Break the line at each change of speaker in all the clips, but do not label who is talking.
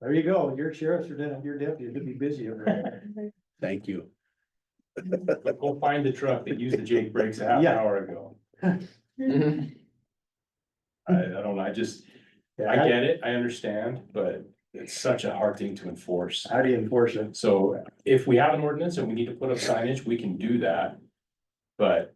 There you go. Your sheriffs are down, your deputies would be busy over there.
Thank you.
Go find the truck that used the Jake brakes a half
Yeah.
hour ago. I, I don't, know. I just, I
Yeah,
get it, I understand, but it's such a hard thing to enforce.
How do you enforce it?
So if we have an ordinance and we need to put up signage, we can do that. But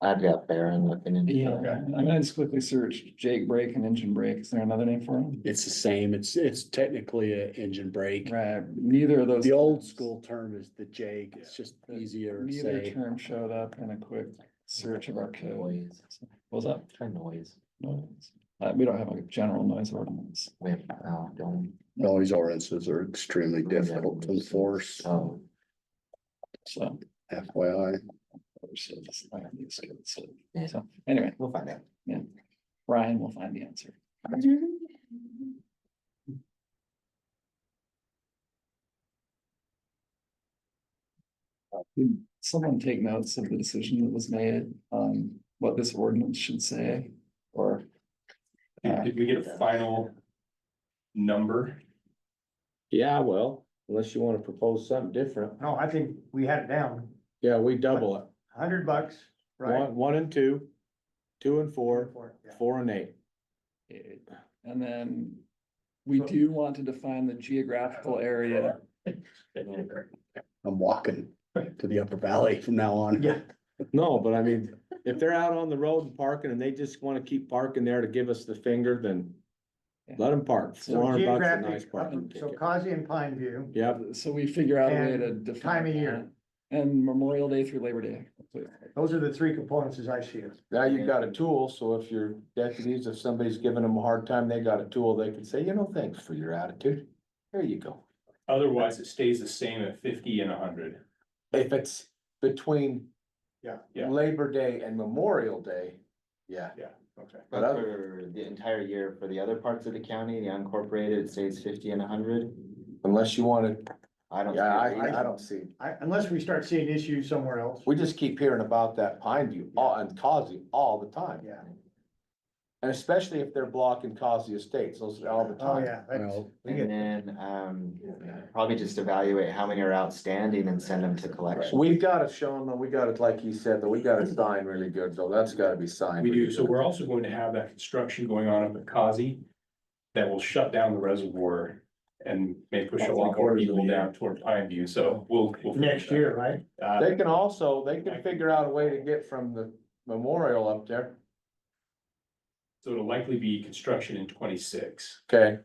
I've got Baron looking into.
Yeah,
Okay.
I'm gonna just quickly search Jake brake and engine brake. Is there another name for them?
It's the same. It's, it's technically a engine brake.
Right, neither of those.
The old
terms-
school term is the Jake. It's just
Yeah.
easier to
Neither
say.
term showed up in a quick search of our code.
Noise,
What Was that?
try noise.
Noise. Uh, we don't have a general noise ordinance.
We have, oh, don't.
Noise ordinances are extremely difficult to enforce,
Oh,
So.
FYI.
so this- I don't need to skip it, so-
Yeah.
So, anyway,
we'll find out.
Ryan will find the answer. Did Hmm. Someone take notes of the decision that was made on what this ordinance should say or
did did we get a final number?
Yeah, well, unless you wanna propose something different,
No, I think we had it down.
yeah, we double it,
Hundred bucks, right?
one, one and two, two and four,
Yeah.
four and eight.
It- And then we do want to define the geographical area.
I'm walking to the upper valley from now on.
Yeah,
No, but I mean, if they're out on the road and parking and they just wanna keep parking there to give us the finger, then let them park,
So
four
so
hundred bucks a nice
geographic,
parking
so
ticket.
Kazi and Pine View,
Yep,
So we figure out a way to
And
define.
time of year.
that. And Memorial Day through Labor Day.
those are the three components as I see it.
now you've got a tool, so if your deputies, if somebody's giving them a hard time, they got a tool, they can say, you know, thanks for your attitude. There you go.
Otherwise, it stays the same at fifty and hundred.
If it's between
Yeah,
yeah.
Labor Day and Memorial Day, yeah.
Okay.
But for the entire year, for the other parts of the county, the unincorporated, it stays fifty and hundred.
Unless you wanna,
I don't. see
yeah,
a
I,
reason.
I don't see.
I, unless we start seeing issues somewhere else.
We just keep hearing about that Pine View all- and Causey all the time,
Yeah,
and especially if they're blocking Causey Estates, those are all the
oh,
time.
yeah, that's,
Well,
we get-
And then, um, probably just evaluate how many are outstanding and send them to collection.
We've gotta show them, we gotta, like you said, that we gotta sign really good, though, that's gotta be signed.
We do,
really
so
good.
we're also going to have that construction going on up at Kazi that will shut down the reservoir and may push a lot more people down toward Pine View, so we'll. we'll-
next year, right?
Uh,
They can also, they can figure out a way to get from the memorial up there,
so it'll likely be construction in twenty-six.
okay,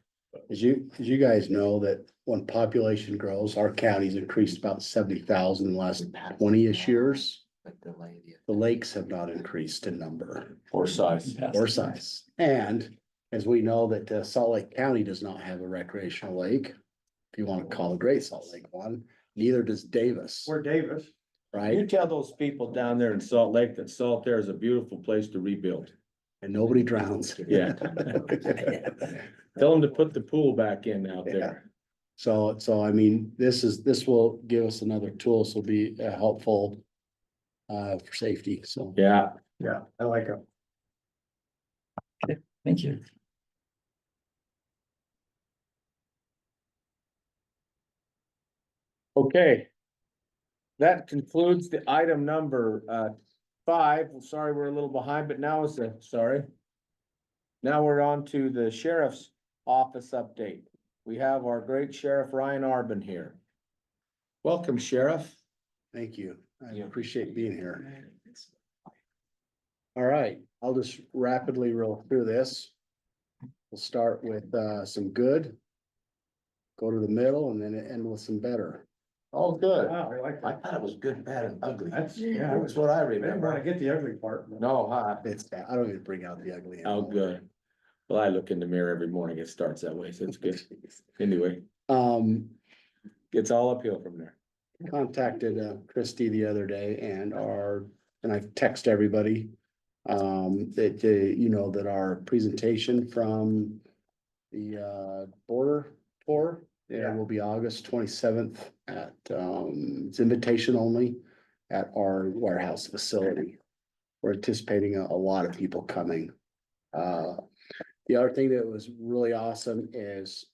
As you, as you guys know that when population grows, our county's increased about seventy thousand in the last twenty-ish years.
But delay the-
The lakes have not increased in number
or size.
or size. And as we know that uh, Salt Lake County does not have a recreational lake. If you want to call the Great Salt Lake one, neither does Davis,
Or Davis,
right?
You tell those people down there in Salt Lake that Salt there is a beautiful place to rebuild,
And nobody drowns.
Yeah. tell them to put the pool back in out there.
So, so I mean, this is, this will give us another tool, so be uh, helpful uh, for safety, so.
Yeah,
yeah, I like it.
Thank you.
Okay. That concludes the item number uh five. I'm sorry, we're a little behind, but now is the, sorry. Now we're on to the sheriff's office update. We have our great sheriff Ryan Arbin here. Welcome, Sheriff.
Thank you. I
Yeah.
appreciate being here. All right, I'll just rapidly roll through this. We'll start with uh some good. Go to the middle and then end with some better.
Oh, good.
Wow, I like
I
that.
thought it was good, bad and ugly.
That's, yeah, I
That's what I
didn't wanna
remember.
get the ugly part. but-
No, huh?
It's, I don't even bring out the ugly.
Oh, good. Well, I look in the mirror every morning. It starts that way, so it's good. Anyway,
Um,
it's all uphill from there.
contacted uh, Christie the other day and our, and I've texted everybody. Um, that, uh, you know, that our presentation from the uh, border tour. It
Yeah.
will be August twenty-seventh at, um, it's invitation only at our warehouse facility. We're anticipating a, a lot of people coming. Uh, the other thing that was really awesome is